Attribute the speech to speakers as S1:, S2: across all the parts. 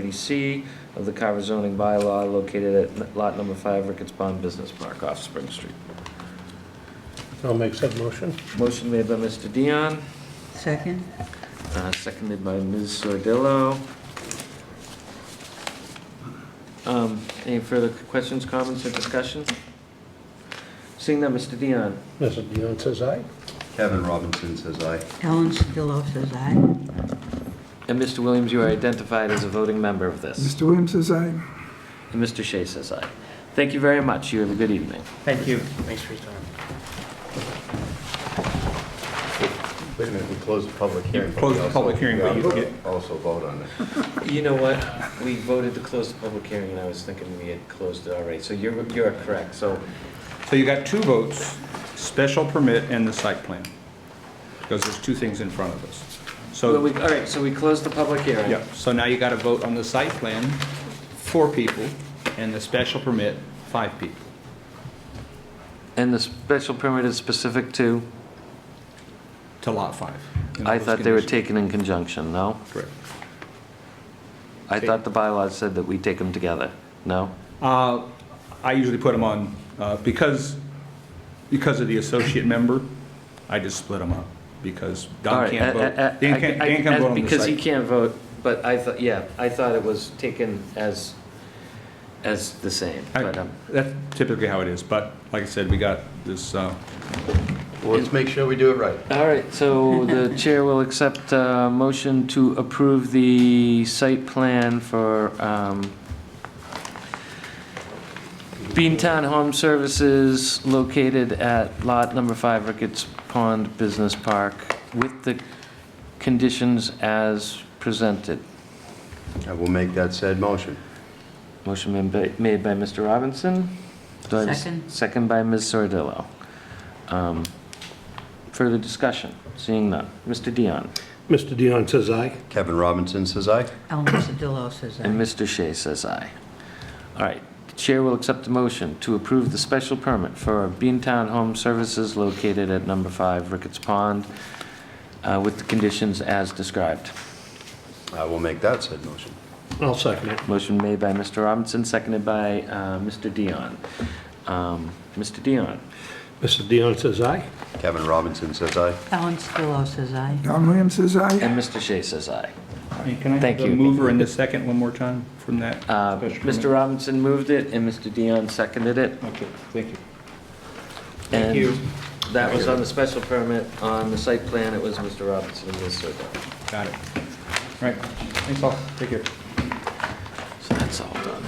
S1: 230C of the Carver zoning bylaw located at lot number five, Ricketts Pond Business Park off Spring Street.
S2: I'll make said motion.
S1: Motion made by Mr. Dion,
S3: Second?
S1: uh, seconded by Ms. Sordillo. Um, Any further questions, comments, or discussion? Seeing that, Mr. Dion.
S2: Mrs. Dion says aye.
S4: Kevin Robinson says aye.
S3: Ellen Sedillo says aye.
S1: And Mr. Williams, you are identified as a voting member of this.
S5: Mr. Williams says aye.
S1: And Mr. Shea says aye. Thank you very much. You have a good evening.
S6: Thank you. Thanks for your time.
S4: Wait a minute, we closed the public hearing. but
S6: closed
S4: we
S6: the
S4: also-
S6: public hearing, but
S4: we
S6: you
S4: also-
S6: get-
S4: Also vote on it.
S1: You know what? We voted to close the public hearing, and I was thinking we had closed it already. So you're, you're correct. So
S6: So you got two votes, special permit and the site plan. Because there's two things in front of us.
S1: Well,
S6: So,
S1: we- All right, so we closed the public hearing.
S6: yeah, so now you got to vote on the site plan, four people, and the special permit, five people.
S1: And the special permit is specific to,
S6: to lot five. And
S1: I
S6: those
S1: thought they were
S6: conditions.
S1: taken in conjunction, no?
S6: Correct.
S1: I thought the bylaws said that we take them together, no?
S6: Uh, I usually put them on, uh, because, because of the associate member, I just split them up, because
S1: All
S6: Don
S1: right,
S6: can't
S1: I-
S6: vote.
S1: I- I-
S6: Dan can't,
S1: I-
S6: Dan can't
S1: I-
S6: vote on the
S1: Because he
S6: site.
S1: can't vote, but I thought, yeah, I thought it was taken as, as the same.
S6: I-
S1: But um,
S6: That's typically how it is, but like I said, we got this, uh,
S4: Well, Let's make sure we do it right.
S1: All right, so the chair will accept a motion to approve the site plan for um, Beantown Home Services located at lot number five, Ricketts Pond Business Park, with the conditions as presented.
S4: I will make that said motion.
S1: Motion been ba- made by Mr. Robinson. Do I have a s-
S3: Second.
S1: Second by Ms. Sordillo. Um, Further discussion? Seeing none. Mr. Dion.
S2: Mr. Dion says aye.
S4: Kevin Robinson says aye.
S3: Ellen Sedillo says
S1: And
S3: aye.
S1: Mr. Shea says aye. All right, the chair will accept the motion to approve the special permit for Beantown Home Services located at number five Ricketts Pond uh, with the conditions as described.
S4: I will make that said motion.
S2: I'll second it.
S1: Motion made by Mr. Robinson, seconded by uh, Mr. Dion. Um, Mr. Dion.
S2: Mrs. Dion says aye.
S4: Kevin Robinson says aye.
S3: Ellen Sedillo says aye.
S5: Don Williams says aye.
S1: And Mr. Shea says aye.
S6: can I have
S1: Thank
S6: the
S1: you.
S6: mover and the second one more time from that?
S1: Uh,
S6: special
S1: Mr.
S6: permit?
S1: Robinson moved it, and Mr. Dion seconded it.
S6: Okay, thank you.
S1: Thank you. That was on the special permit. On the site plan, it was Mr. Robinson and Ms. Sordillo.
S6: Got it. All right, thanks all, take care.
S1: So that's all done.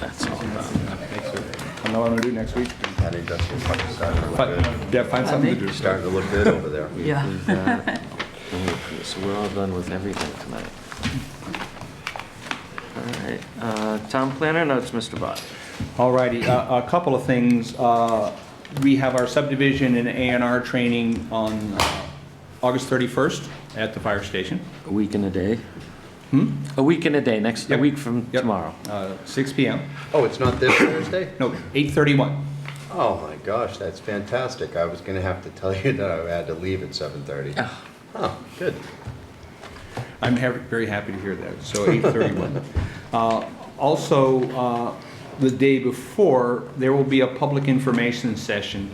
S1: That's all done.
S6: Thanks, sir. I know what I'm gonna do next week.
S4: I think that's what Mike decided. Look
S6: But,
S4: good.
S6: yeah, find something to do.
S4: Starting to look good over there.
S3: Yeah.
S1: We've, uh, we- So we're all done with everything tonight. All right, uh, town planner notes, Mr. Bott.
S6: Alrighty, uh, a couple of things. Uh, We have our subdivision and A and R training on uh, August 31st at the fire station,
S1: A week and a day?
S6: Hmm?
S1: A week and a day, next, a
S6: Yep.
S1: week from
S6: Yep.
S1: tomorrow.
S6: uh, 6 PM.
S4: Oh, it's not this Thursday?
S6: No, 8:31.
S4: Oh, my gosh, that's fantastic. I was gonna have to tell you that I had to leave at 7:30. Oh, good.
S6: I'm ha- very happy to hear that, so 8:31. Uh, Also, uh, the day before, there will be a public information session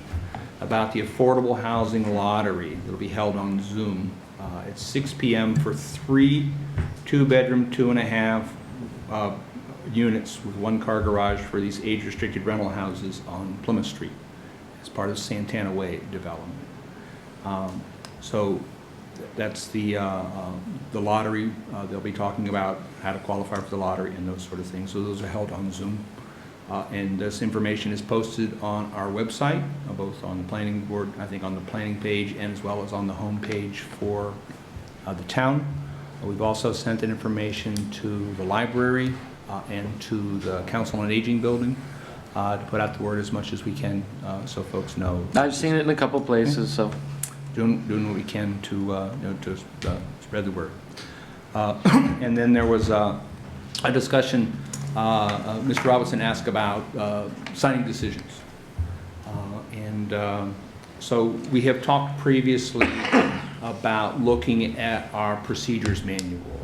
S6: about the Affordable Housing Lottery that'll be held on Zoom uh, at 6 PM for three two-bedroom, two-and-a-half uh, units with one-car garage for these age-restricted rental houses on Plymouth Street as part of Santana Way development. Um, So that's the, uh, uh, the lottery, Uh, they'll be talking about how to qualify for the lottery and those sort of things. So those are held on Zoom. Uh, And this information is posted on our website, uh, both on the planning board, I think on the planning page, and as well as on the homepage for uh, the town. Uh, We've also sent that information to the library uh, and to the Council on Aging Building uh, to put out the word as much as we can uh, so folks know
S1: I've seen it in a couple places, so.
S6: doing, doing what we can to, uh, you know, to uh, spread the word. Uh, And then there was uh, a discussion, uh, uh, Mr. Robinson asked about uh, signing decisions. Uh, And um, so we have talked previously about looking at our procedures manual